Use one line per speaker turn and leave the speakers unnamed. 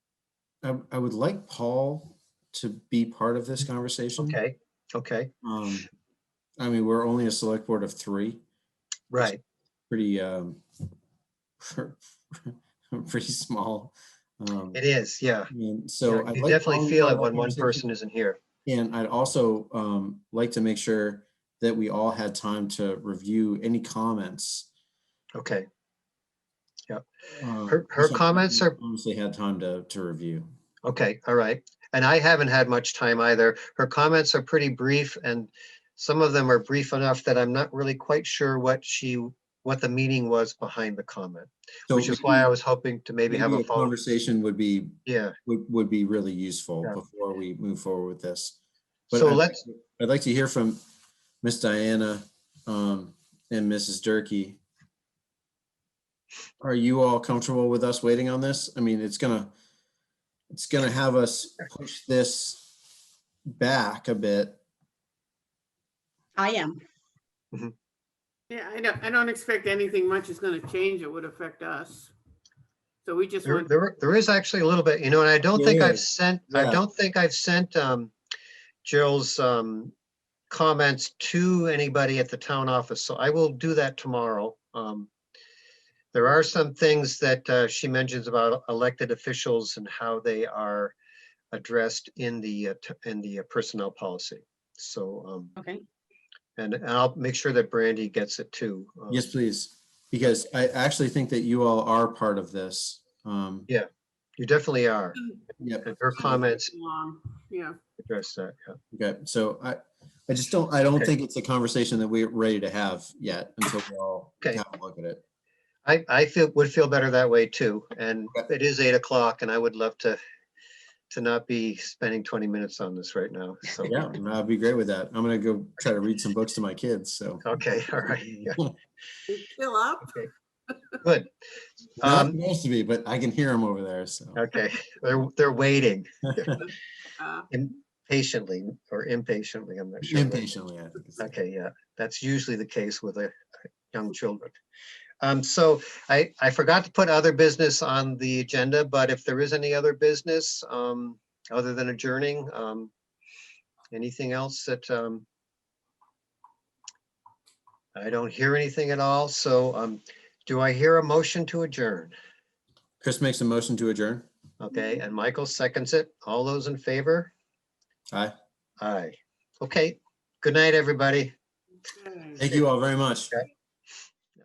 I, I would like Paul to be part of this conversation.
Okay, okay,
Um, I mean, we're only a select board of three,
right.
pretty, um, pretty small. Um,
It is, yeah.
I mean,
Yeah,
so. I'd like
You
Paul
definitely
to be
feel
part
it
of that
when one
conversation.
person isn't here.
And I'd also um, like to make sure that we all had time to review any comments.
Okay,
uh,
Her- her
so
comments
we
are-
Honestly had time to, to review.
okay, all right. And I haven't had much time either. Her comments are pretty brief and some of them are brief enough that I'm not really quite sure what she, what the meaning was behind the comment,
So
which is why I
maybe-
was hoping to maybe have
maybe
a follow.
Conversation would be,
Yeah,
would, would be really useful
Yeah.
before we move forward with this. But
so
I'd-
let's,
I'd like to hear from Miss Diana um, and Mrs. Durkey. Are you all comfortable with us waiting on this? I mean, it's gonna, it's gonna have us push this back a bit.
I am.
Yeah, I don't, I don't expect anything much is gonna change that would affect us. So we just
there,
want,
there there is actually a little bit, you know, and I don't think
Yeah,
I've sent, I
yeah.
don't think I've sent, um, Jill's, um, comments to anybody at the town office, so I will do that tomorrow. Um, there are some things that, uh, she mentions about elected officials and how they are addressed in the, uh, t- in the uh, personnel policy. So, um,
Okay.
and and I'll make sure that Brandy gets it too. um,
Yes, please, because I actually think that you all are part of this. Um,
Yeah. You definitely are,
Yep,
and her comments
um, yeah,
address that, yeah.
okay, so I, I just don't, I don't
Okay.
think it's a conversation that we're ready to have yet until we all
Okay.
have a look at it.
I, I feel, would feel better that way too, and
Okay.
it is eight o'clock and I would love to, to not be spending twenty minutes on this right now, so.
Yeah, I'd be great with that. I'm gonna go try to read some books to my kids, so.
Okay, all right, yeah,
It's still up.
good.
Not
Um,
supposed to be, but I can hear them over there, so.
okay, they're, they're waiting
Uh,
impatiently or impatiently, I'm not sure. which.
Impatiently, I think. it's-
Okay, yeah, that's usually the case with uh, young children. Um, so I, I forgot to put other business on the agenda, but if there is any other business, um, other than adjourning, um, anything else that, um, I don't hear anything at all, so, um, do I hear a motion to adjourn?
Chris makes a motion to adjourn.
Okay, and Michael seconds it. All those in favor?
Aye.
Aye. Okay, good night, everybody.
okay.
Thank you all very much.
Okay.